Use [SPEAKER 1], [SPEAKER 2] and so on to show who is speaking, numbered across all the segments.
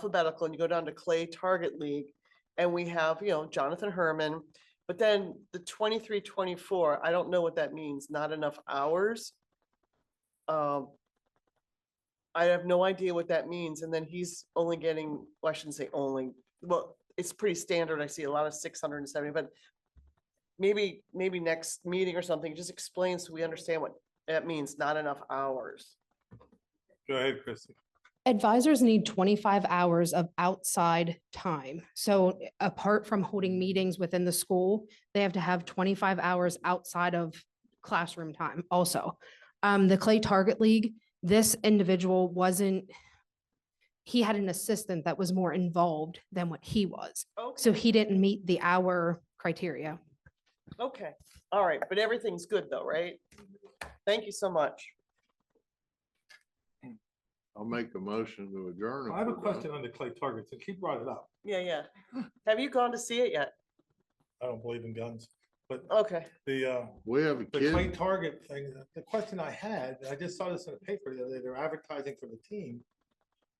[SPEAKER 1] alphabetical and you go down to Clay Target League and we have, you know, Jonathan Herman. But then the 23, 24. I don't know what that means, not enough hours. Um, I have no idea what that means. And then he's only getting, well, I shouldn't say only, well, it's pretty standard. I see a lot of six hundred and seventy, but maybe, maybe next meeting or something, just explain so we understand what that means, not enough hours.
[SPEAKER 2] Go ahead, Christie.
[SPEAKER 3] Advisors need twenty-five hours of outside time. So apart from holding meetings within the school, they have to have twenty-five hours outside of classroom time also. Um, the Clay Target League, this individual wasn't, he had an assistant that was more involved than what he was. So he didn't meet the hour criteria.
[SPEAKER 1] Okay, all right, but everything's good though, right? Thank you so much.
[SPEAKER 4] I'll make a motion to adjourn.
[SPEAKER 2] I have a question on the clay targets, and keep brought it up.
[SPEAKER 1] Yeah, yeah. Have you gone to see it yet?
[SPEAKER 2] I don't believe in guns, but
[SPEAKER 1] Okay,
[SPEAKER 2] the, uh,
[SPEAKER 4] We have a
[SPEAKER 2] the clay
[SPEAKER 4] kid,
[SPEAKER 2] target thing, the question I had, I just saw this in the paper the other day, they're advertising for the team.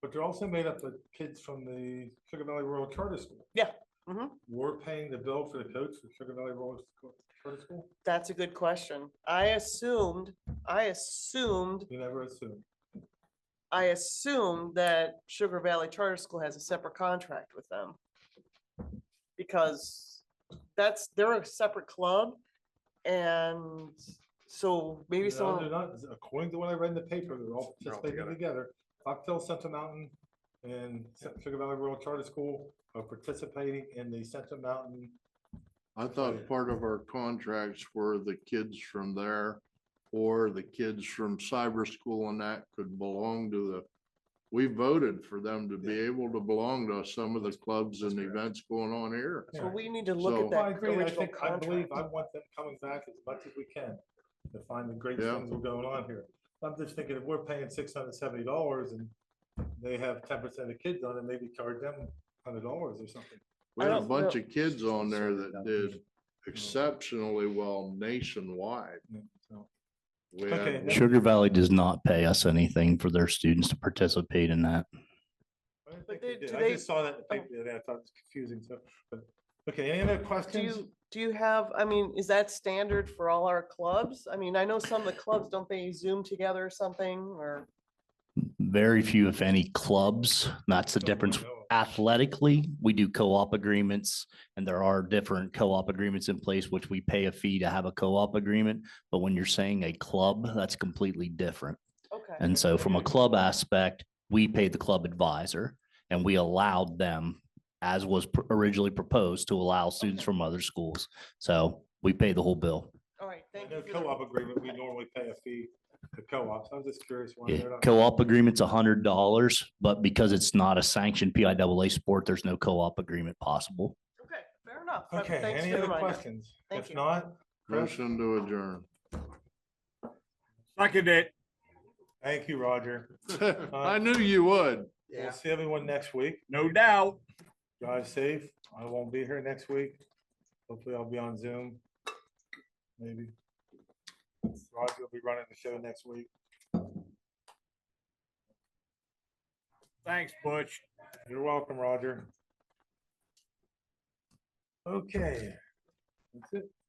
[SPEAKER 2] But they're also made up of kids from the Sugar Valley Rural Charter School.
[SPEAKER 1] Yeah, mhm.
[SPEAKER 2] We're paying the bill for the coach for Sugar Valley Rural Scho- Charter School?
[SPEAKER 1] that's a good question. I assumed, I assumed,
[SPEAKER 2] You never assume.
[SPEAKER 1] I assumed that Sugar Valley Charter School has a separate contract with them. Because that's, they're a separate club and so maybe
[SPEAKER 2] No, They're
[SPEAKER 1] someone,
[SPEAKER 2] not, according to what I read in the paper, they're all
[SPEAKER 4] They're all
[SPEAKER 2] participating together. Foxtel Central Mountain and Cent- Sugar Valley Rural Charter School are participating in the Central Mountain
[SPEAKER 4] I thought part of our contracts were the kids from there or the kids from cyber school and that could belong to the, we voted for them to be able to belong to some of the clubs and events going on here.
[SPEAKER 1] so we need to
[SPEAKER 4] So-
[SPEAKER 1] look at
[SPEAKER 2] Well, I
[SPEAKER 1] that
[SPEAKER 2] agree. I
[SPEAKER 1] original
[SPEAKER 2] think, I believe,
[SPEAKER 1] contract.
[SPEAKER 2] I want them coming back as much as we can to find the great
[SPEAKER 4] Yeah.
[SPEAKER 2] things that are going on here. I'm just thinking if we're paying six hundred and seventy dollars and they have ten percent of kids on it, maybe charge them hundred dollars or something.
[SPEAKER 4] We
[SPEAKER 1] I
[SPEAKER 4] had a
[SPEAKER 1] don't
[SPEAKER 4] bunch
[SPEAKER 1] know.
[SPEAKER 4] of kids on there that did exceptionally well nationwide.
[SPEAKER 2] So,
[SPEAKER 4] We
[SPEAKER 2] Okay,
[SPEAKER 4] had
[SPEAKER 2] that-
[SPEAKER 5] Sugar Valley does not pay us anything for their students to participate in that.
[SPEAKER 2] I
[SPEAKER 1] But
[SPEAKER 2] didn't think they
[SPEAKER 1] they-
[SPEAKER 2] did.
[SPEAKER 1] do
[SPEAKER 2] I
[SPEAKER 1] they- Oh.
[SPEAKER 2] just saw that in the paper the other day. I thought it was confusing, so, but, okay, any other
[SPEAKER 1] Do
[SPEAKER 2] questions?
[SPEAKER 1] you, do you have, I mean, is that standard for all our clubs? I mean, I know some of the clubs, don't they Zoom together or something or?
[SPEAKER 5] Very few, if any, clubs. That's the
[SPEAKER 2] Don't really
[SPEAKER 5] difference.
[SPEAKER 2] know.
[SPEAKER 5] Athletically, we do co-op agreements and there are different co-op agreements in place, which we pay a fee to have a co-op agreement. But when you're saying a club, that's completely different.
[SPEAKER 1] Okay,
[SPEAKER 5] And so from a club aspect, we paid the club advisor and we allowed them, as was pr- originally proposed, to allow students from other schools. So we pay the whole bill.
[SPEAKER 1] all right,
[SPEAKER 2] I
[SPEAKER 1] thank
[SPEAKER 2] know
[SPEAKER 1] you. for the-
[SPEAKER 2] co-op agreement, we normally pay a fee to co-ops. I was just curious why
[SPEAKER 5] Yeah,
[SPEAKER 2] they're not.
[SPEAKER 5] co-op agreement's a hundred dollars, but because it's not a sanctioned PIAA sport, there's no co-op agreement possible.
[SPEAKER 1] Okay, fair enough. Uh,
[SPEAKER 2] Okay,
[SPEAKER 1] thanks
[SPEAKER 2] any
[SPEAKER 1] for the
[SPEAKER 2] other
[SPEAKER 1] reminder.
[SPEAKER 2] questions?
[SPEAKER 1] Thank
[SPEAKER 2] If
[SPEAKER 1] you.
[SPEAKER 2] not,
[SPEAKER 4] Motion to adjourn.
[SPEAKER 6] Second it.
[SPEAKER 2] thank you, Roger. Uh,
[SPEAKER 4] I knew you would.
[SPEAKER 2] We'll see everyone next week.
[SPEAKER 6] No doubt.
[SPEAKER 2] Drive safe. I won't be here next week. Hopefully I'll be on Zoom. Maybe. Roger will be running the show next week.
[SPEAKER 6] Thanks, Butch.
[SPEAKER 2] You're welcome, Roger. Okay. That's it.